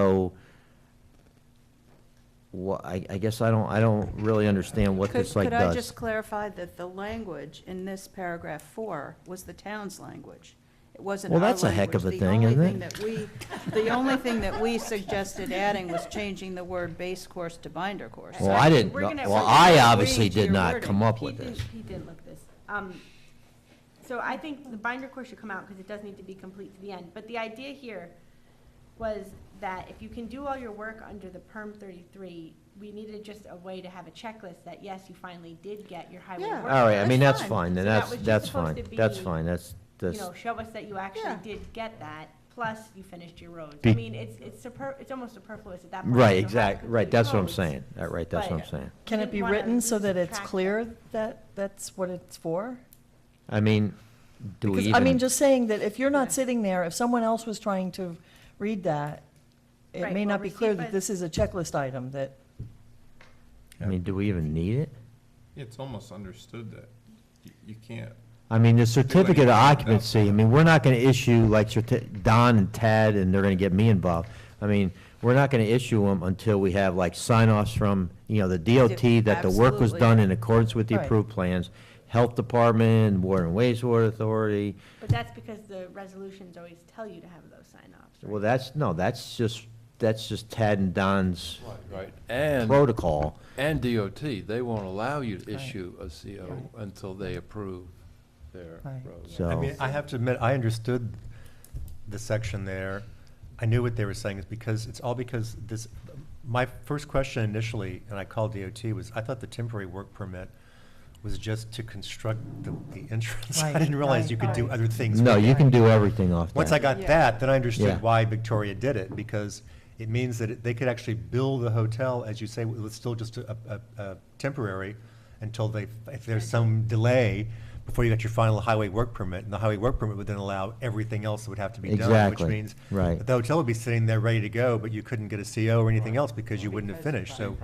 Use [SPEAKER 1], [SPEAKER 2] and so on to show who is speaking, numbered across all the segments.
[SPEAKER 1] So, wha- I, I guess I don't, I don't really understand what
[SPEAKER 2] Could,
[SPEAKER 1] this like
[SPEAKER 2] could I
[SPEAKER 1] does.
[SPEAKER 2] just clarify that the language in this paragraph four was the town's language? It wasn't
[SPEAKER 1] Well,
[SPEAKER 2] our
[SPEAKER 1] that's a heck of
[SPEAKER 2] language.
[SPEAKER 1] a thing, isn't it?
[SPEAKER 2] The only thing that we, the only thing that we suggested adding was changing the word base course to binder course.
[SPEAKER 1] Well, I didn't,
[SPEAKER 3] We're gonna-
[SPEAKER 1] well,
[SPEAKER 3] we're gonna
[SPEAKER 1] I obviously
[SPEAKER 2] agree to
[SPEAKER 1] did
[SPEAKER 2] your
[SPEAKER 1] not
[SPEAKER 2] wording.
[SPEAKER 1] come up
[SPEAKER 3] He
[SPEAKER 1] with
[SPEAKER 3] didn't-
[SPEAKER 1] this.
[SPEAKER 3] He didn't look this. Um, So I think the binder course should come out because it does need to be complete to the end. But the idea here was that if you can do all your work under the perm thirty-three, we needed just a way to have a checklist that, yes, you finally did get your highway
[SPEAKER 2] Yeah.
[SPEAKER 3] work.
[SPEAKER 1] All right, I
[SPEAKER 2] That's
[SPEAKER 1] mean, that's
[SPEAKER 2] fine.
[SPEAKER 1] fine, then
[SPEAKER 3] So that
[SPEAKER 1] that's,
[SPEAKER 3] was just
[SPEAKER 1] that's
[SPEAKER 3] supposed
[SPEAKER 1] fine,
[SPEAKER 3] to
[SPEAKER 1] that's
[SPEAKER 3] be,
[SPEAKER 1] fine, that's,
[SPEAKER 3] You
[SPEAKER 1] that's,
[SPEAKER 3] know, show us that you actually
[SPEAKER 2] Yeah.
[SPEAKER 3] did get that, plus you finished your roads.
[SPEAKER 1] Be-
[SPEAKER 3] I mean, it's, it's super, it's almost superfluous at that point.
[SPEAKER 1] right,
[SPEAKER 3] You don't have
[SPEAKER 1] exact, right,
[SPEAKER 3] complete
[SPEAKER 1] that's what I'm
[SPEAKER 3] roads.
[SPEAKER 1] saying, Uh, right, that's what I'm
[SPEAKER 3] But-
[SPEAKER 1] saying.
[SPEAKER 4] Can it
[SPEAKER 3] didn't
[SPEAKER 4] be
[SPEAKER 3] wanna
[SPEAKER 4] witten so that it's
[SPEAKER 3] subtract it.
[SPEAKER 4] clear that that's what it's for?
[SPEAKER 1] I mean, do we
[SPEAKER 4] Because,
[SPEAKER 1] even?
[SPEAKER 4] I mean, just saying that if you're
[SPEAKER 3] Yeah.
[SPEAKER 4] not sitting there, if someone else was trying to read that, it
[SPEAKER 3] Right,
[SPEAKER 4] may
[SPEAKER 3] well,
[SPEAKER 4] not be clear
[SPEAKER 3] received by
[SPEAKER 4] that
[SPEAKER 3] the-
[SPEAKER 4] this is a checklist item, that,
[SPEAKER 1] I mean, do we even need it?
[SPEAKER 5] It's almost understood that you- you can't,
[SPEAKER 1] I mean, the certificate of
[SPEAKER 5] anything without
[SPEAKER 1] occupancy, I mean, we're not gonna issue like certi- Don and Tad, and they're gonna get me involved. I mean, we're not gonna issue them until we have like sign-offs from, you know, the DOT that the work was
[SPEAKER 2] Absolutely.
[SPEAKER 1] done in accordance with the
[SPEAKER 4] Right.
[SPEAKER 1] approved plans, Health Department, Water and Wastewater Authority.
[SPEAKER 3] But that's because the resolutions always tell you to have those sign-offs.
[SPEAKER 1] Well, that's, no, that's just, that's just Tad and Don's
[SPEAKER 6] Right, and,
[SPEAKER 1] protocol.
[SPEAKER 6] and DOT, they won't allow you to issue a CO until they approve their
[SPEAKER 4] Right.
[SPEAKER 6] roads.
[SPEAKER 1] So-
[SPEAKER 7] I mean, I have to admit, I understood the section there. I knew what they were saying, is because, it's all because this, my first question initially, and I called DOT, was I thought the temporary work permit was just to construct the, the entrance. I
[SPEAKER 4] Right,
[SPEAKER 7] didn't realize
[SPEAKER 4] right,
[SPEAKER 7] you could do
[SPEAKER 4] right.
[SPEAKER 7] other things.
[SPEAKER 1] No,
[SPEAKER 7] with
[SPEAKER 1] you
[SPEAKER 7] it.
[SPEAKER 1] can do everything off that.
[SPEAKER 7] Once I got
[SPEAKER 2] Yeah.
[SPEAKER 7] that, then I
[SPEAKER 1] Yeah.
[SPEAKER 7] understood why Victoria did it, because it means that it- they could actually build the hotel, as you say, it was still just a, a, a temporary until they, if there's some delay before you get your final highway work permit, and the highway work permit would then allow everything else that would have to be done, which
[SPEAKER 1] Exactly,
[SPEAKER 7] means
[SPEAKER 1] right.
[SPEAKER 7] that the hotel would be sitting there ready to go, but you couldn't get a CO or anything else because you wouldn't have finished, so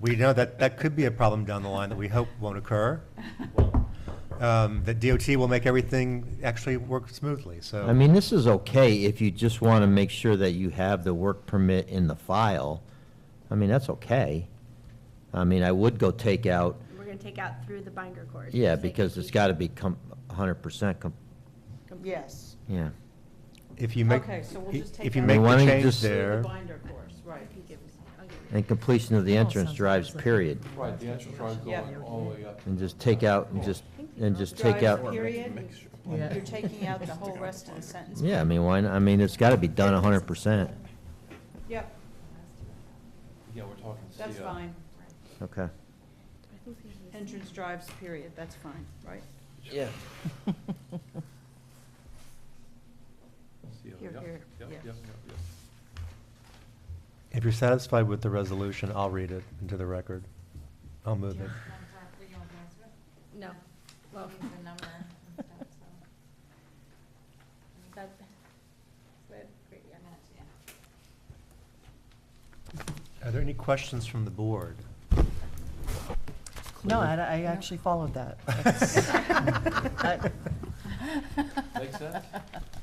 [SPEAKER 7] we know that that could be a problem down the line that we hope won't occur. Um, that DOT will make everything actually work smoothly, so.
[SPEAKER 1] I mean, this is okay if you just want to make sure that you have the work permit in the file. I mean, that's okay. I mean, I would go take out,
[SPEAKER 3] We're gonna take out through the binder course.
[SPEAKER 1] yeah,
[SPEAKER 3] just like
[SPEAKER 1] because it's
[SPEAKER 3] completion.
[SPEAKER 1] got to be com, hundred percent com,
[SPEAKER 3] Complete.
[SPEAKER 2] Yes.
[SPEAKER 1] yeah.
[SPEAKER 7] If you make,
[SPEAKER 2] Okay, so we'll
[SPEAKER 7] i-
[SPEAKER 2] just take
[SPEAKER 7] if you
[SPEAKER 2] out
[SPEAKER 7] make
[SPEAKER 1] Why
[SPEAKER 7] the
[SPEAKER 1] don't you
[SPEAKER 7] change
[SPEAKER 1] just-
[SPEAKER 7] there,
[SPEAKER 2] binder course, right.
[SPEAKER 3] If he gives- I'll give you-
[SPEAKER 1] And completion of the
[SPEAKER 4] Oh,
[SPEAKER 1] entrance
[SPEAKER 4] sounds
[SPEAKER 1] drives
[SPEAKER 4] like-
[SPEAKER 1] period.
[SPEAKER 6] Right, the entrance road going
[SPEAKER 4] Mm.
[SPEAKER 6] all the way up.
[SPEAKER 1] And just take out, and just, and just take
[SPEAKER 2] Drive
[SPEAKER 1] out,
[SPEAKER 2] period,
[SPEAKER 4] Yeah.
[SPEAKER 2] you're taking out the whole rest of the sentence.
[SPEAKER 1] yeah, I mean, why, not? I mean, it's got to be done hundred percent.
[SPEAKER 2] Yep,
[SPEAKER 6] Yeah, we're talking CO.
[SPEAKER 2] that's fine.
[SPEAKER 1] Okay.
[SPEAKER 3] I think this is-
[SPEAKER 2] Entrance drives period, that's fine, right?
[SPEAKER 1] Yeah.
[SPEAKER 6] CO,
[SPEAKER 2] Here,
[SPEAKER 6] yep,
[SPEAKER 2] here,
[SPEAKER 6] yep,
[SPEAKER 2] yeah.
[SPEAKER 6] yep, yep, yep.
[SPEAKER 7] if you're satisfied with the resolution, I'll read it into the record. I'll move it.
[SPEAKER 3] No, well, that, that, great, yeah.
[SPEAKER 7] Are there any questions from the board?
[SPEAKER 4] no, I, I actually followed that. That-
[SPEAKER 6] Makes sense?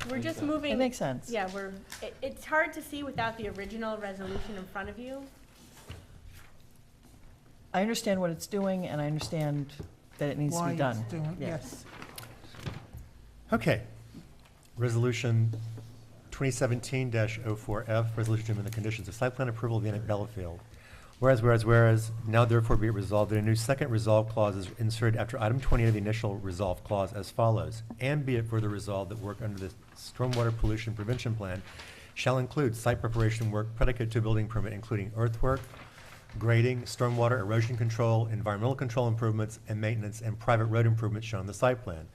[SPEAKER 3] We're
[SPEAKER 6] Makes
[SPEAKER 3] just
[SPEAKER 6] sense.
[SPEAKER 3] moving.
[SPEAKER 4] It makes sense.
[SPEAKER 3] Yeah, we're, it, it's hard to see without the original resolution in front of you.
[SPEAKER 4] I understand what it's doing, and I understand that it needs to be done.
[SPEAKER 2] yes.
[SPEAKER 7] Okay. Resolution 2017-04F, resolution to amend the conditions of site plan approval of the Inn at Bellafield. Whereas, whereas, whereas, now therefore be it resolved that a new second resolve clause is inserted after item 20 of the initial resolve clause as follows. And be it further resolved that work under the Stormwater Pollution Prevention Plan shall include site preparation work predicate to building permit, including earthwork, grading, stormwater erosion control, environmental control improvements, and maintenance and private road improvements shown on the site plan.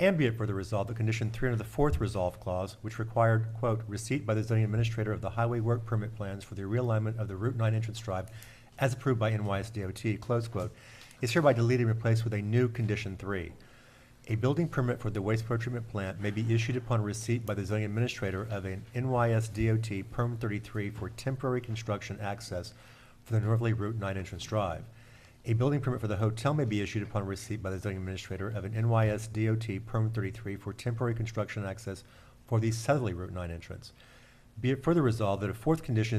[SPEAKER 7] And be it further resolved that condition three under the fourth resolve clause, which required, quote, receipt by the zoning administrator of the highway work permit plans for the realignment of the Route Nine entrance drive as approved by NYSDOT, close quote, is hereby deleted and replaced with a new condition three. A building permit for the wastewater treatment plant may be issued upon receipt by the zoning administrator of an NYSDOT perm thirty-three for temporary construction access for the northerly Route Nine entrance drive. A building permit for the hotel may be issued upon receipt by the zoning administrator of an NYSDOT perm thirty-three for temporary construction access for the southerly Route Nine entrance. Be it further resolved that a fourth condition is